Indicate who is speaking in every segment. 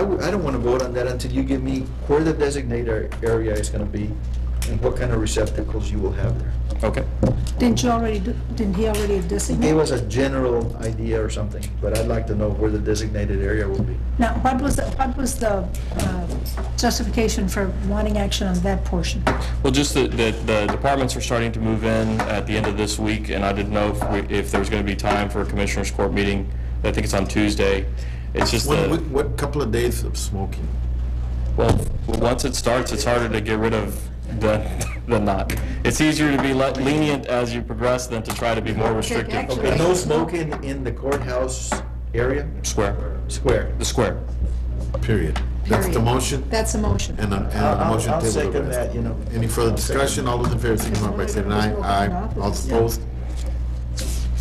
Speaker 1: I don't want to vote on that until you give me where the designated area is going to be and what kind of receptacles you will have there.
Speaker 2: Okay.
Speaker 3: Didn't you already, do- didn't he already designate?
Speaker 1: Gave us a general idea or something, but I'd like to know where the designated area will be.
Speaker 3: Now, what was, the- what was the uh, justification for wanting action on that portion?
Speaker 2: Well, just that, that the departments are starting to move in at the end of this week, and I didn't know if, we- if there was going to be time for a commissioners' court meeting. I think it's on Tuesday. It's just
Speaker 4: What,
Speaker 2: the,
Speaker 4: what- what couple of days of smoking?
Speaker 2: well, once it starts, it's harder to get rid of than, than not. It's easier to be le- lenient as you progress than to try to be more restrictive.
Speaker 3: actually-
Speaker 1: Okay, no smoking in the courthouse area,
Speaker 2: Square,
Speaker 1: square.
Speaker 2: the square.
Speaker 4: Period. That's the
Speaker 3: Period.
Speaker 4: motion?
Speaker 3: That's a motion.
Speaker 4: And, uh, and the
Speaker 1: I'll-
Speaker 4: motion
Speaker 1: I'll
Speaker 4: table.
Speaker 1: second that, you know.
Speaker 4: Any further discussion? All those in favor, signify by saying aye. Aye. All opposed?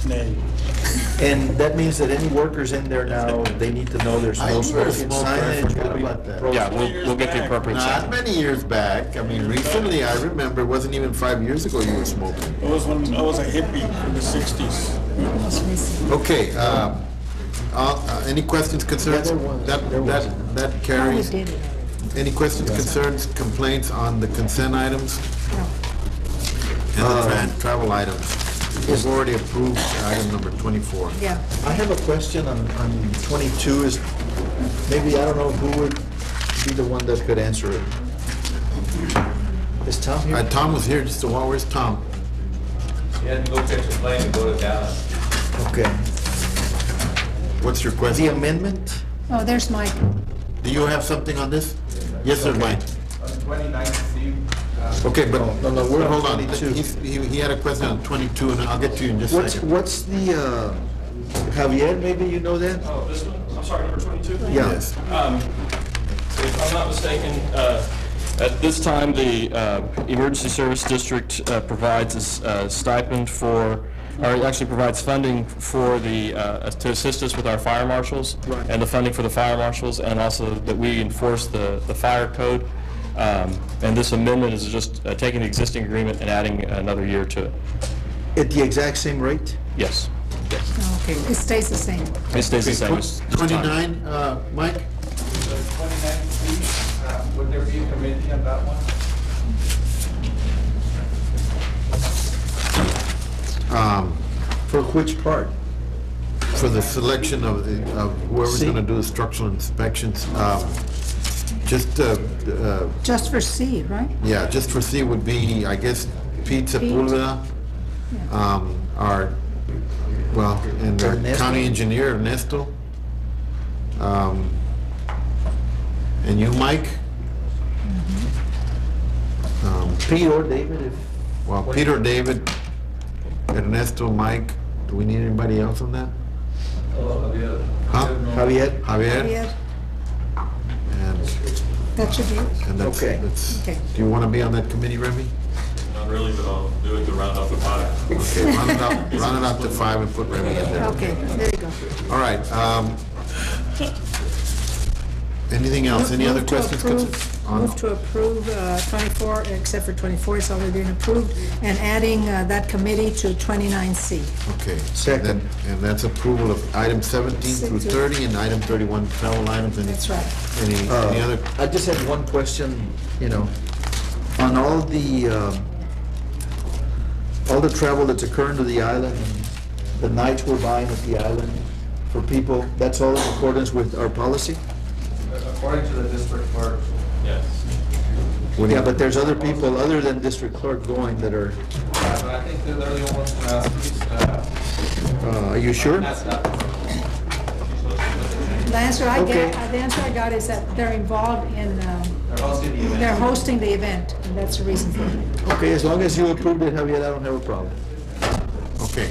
Speaker 1: And that means that any workers in there now, they need to know there's
Speaker 4: I
Speaker 1: no
Speaker 4: do have a
Speaker 1: smoking
Speaker 4: small question
Speaker 1: signage. will be
Speaker 4: about that.
Speaker 1: pro-
Speaker 2: Yeah, we'll, we'll get the appropriate
Speaker 4: Not
Speaker 2: sign.
Speaker 4: many years back. I mean, recently, I remember, it wasn't even five years ago you were smoking.
Speaker 5: I was when I was a hippie in the sixties.
Speaker 4: Okay, um, uh, uh, any questions, concerns?
Speaker 1: Yeah, there was-
Speaker 4: That,
Speaker 1: there was.
Speaker 4: that, that
Speaker 3: Oh, we
Speaker 4: carries.
Speaker 3: did it.
Speaker 4: Any questions, concerns, complaints on the consent items
Speaker 3: No.
Speaker 4: and
Speaker 1: Uh,
Speaker 4: the tran- travel items? We've already approved item number twenty-four.
Speaker 3: Yeah,
Speaker 1: I have a question on, on twenty-two is, maybe, I don't know who would be the one that could answer it. Is Tom
Speaker 4: Uh,
Speaker 1: here?
Speaker 4: Tom was here just a while, where's Tom?
Speaker 6: He had to go catch a plane and go to Dallas.
Speaker 1: Okay.
Speaker 4: What's your
Speaker 1: The
Speaker 4: question?
Speaker 1: amendment,
Speaker 3: oh, there's Mike.
Speaker 4: Do you have something on this? Yes, sir, Mike.
Speaker 6: On the 29th, see, uh,
Speaker 4: Okay, but,
Speaker 1: No, no, no, we're on
Speaker 4: hold on,
Speaker 1: 22.
Speaker 4: He's- he, he had a question on twenty-two, and I'll get to you in just a
Speaker 1: what's,
Speaker 4: second.
Speaker 1: what's the, uh, Javier, maybe you know that?
Speaker 7: Oh, this one? I'm sorry, number 22?
Speaker 1: Yeah.
Speaker 4: Yes.
Speaker 2: If I'm not mistaken, uh, at this time, the uh, Emergency Service District uh, provides a s- uh, stipend for, or it actually provides funding for the, uh, to assist us with our fire marshals.
Speaker 1: Right.
Speaker 2: And the funding for the fire marshals, and also that we enforce the, the fire code. Um, And this amendment is just uh, taking the existing agreement and adding another year to it.
Speaker 1: At the exact same rate?
Speaker 2: Yes.
Speaker 3: Okay, it stays the same.
Speaker 2: It stays the same. as this time.
Speaker 4: Twenty-nine, uh, Mike?
Speaker 6: the 29th, see, uh, would there be a committee on that one?
Speaker 4: Um,
Speaker 1: For which part?
Speaker 4: for the selection of the, of whoever's
Speaker 1: See?
Speaker 4: gonna do the structural inspections, um, just, uh, uh,
Speaker 3: Just for C, right?
Speaker 4: yeah, just for C would be, I guess, Pete Sepulveda, um, our, well, and our
Speaker 1: Ernesto.
Speaker 4: county engineer Ernesto. Um, and you, Mike? Um,
Speaker 1: Pete or David, if,
Speaker 4: well, Peter, David, Ernesto, Mike, do we need anybody else on that? Huh?
Speaker 1: Javier?
Speaker 4: Javier?
Speaker 3: Yeah,
Speaker 4: And
Speaker 3: that should be, it.
Speaker 4: And that's,
Speaker 1: Okay.
Speaker 4: that's,
Speaker 3: Okay.
Speaker 4: do you want to be on that committee, Remy?
Speaker 7: Not really, but I'll do it to round off the five.
Speaker 4: Okay, run it up, run it up to five and put Remy in there.
Speaker 3: okay, there you go.
Speaker 4: All right, um, anything else? Any other
Speaker 8: Move to
Speaker 4: questions?
Speaker 8: approve-
Speaker 4: concerns?
Speaker 8: Move
Speaker 4: On-
Speaker 8: to approve uh, 24, except for 24, it's already been approved, and adding uh, that committee to 29C.
Speaker 4: Okay.
Speaker 1: Second.
Speaker 4: Then- And that's approval of item seventeen through thirty and item thirty-one, travel items. Any-
Speaker 8: That's right.
Speaker 4: Any, any other,
Speaker 1: I just had one question, you know, on all the, um, all the travel that's occurring to the island, and the nights we're buying at the island for people, that's all in accordance with our policy?
Speaker 6: Uh, According to the district clerk,
Speaker 7: Yes.
Speaker 1: Yeah, but there's other people other than district clerk going that are,
Speaker 6: uh, but I think that they're the only ones that asked, these, uh,
Speaker 1: uh, are you sure?
Speaker 6: asked that.
Speaker 8: The answer I
Speaker 1: Okay.
Speaker 8: get, uh, the answer I got is that they're involved in, um,
Speaker 6: They're hosting the event.
Speaker 8: they're hosting the event, and that's the reason for it.
Speaker 1: Okay, as long as you approved it, Javier, I don't have a problem.
Speaker 4: okay.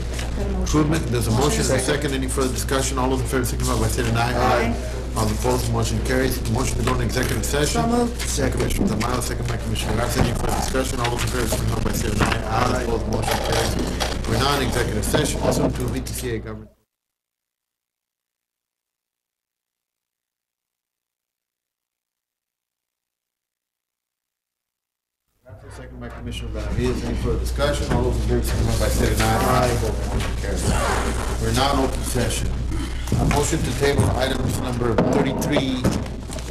Speaker 4: Improvement, there's a motion, and a second, any further discussion? All those in favor, signify by saying aye.
Speaker 8: Aye.
Speaker 4: All opposed, motion carries. Motion to go into executive session.
Speaker 8: So moved.
Speaker 4: Second, Commissioner Tamayo, second by Commissioner Garcia, any further discussion, all those in favor, signify by saying aye. Aye, opposed, motion carries. We're now in executive session, also to VTCA government. Second by Commissioner Benavides, any further discussion, all those in favor, signify by saying aye. Aye, opposed, motion carries. We're now in open session. A motion to table items number thirty-three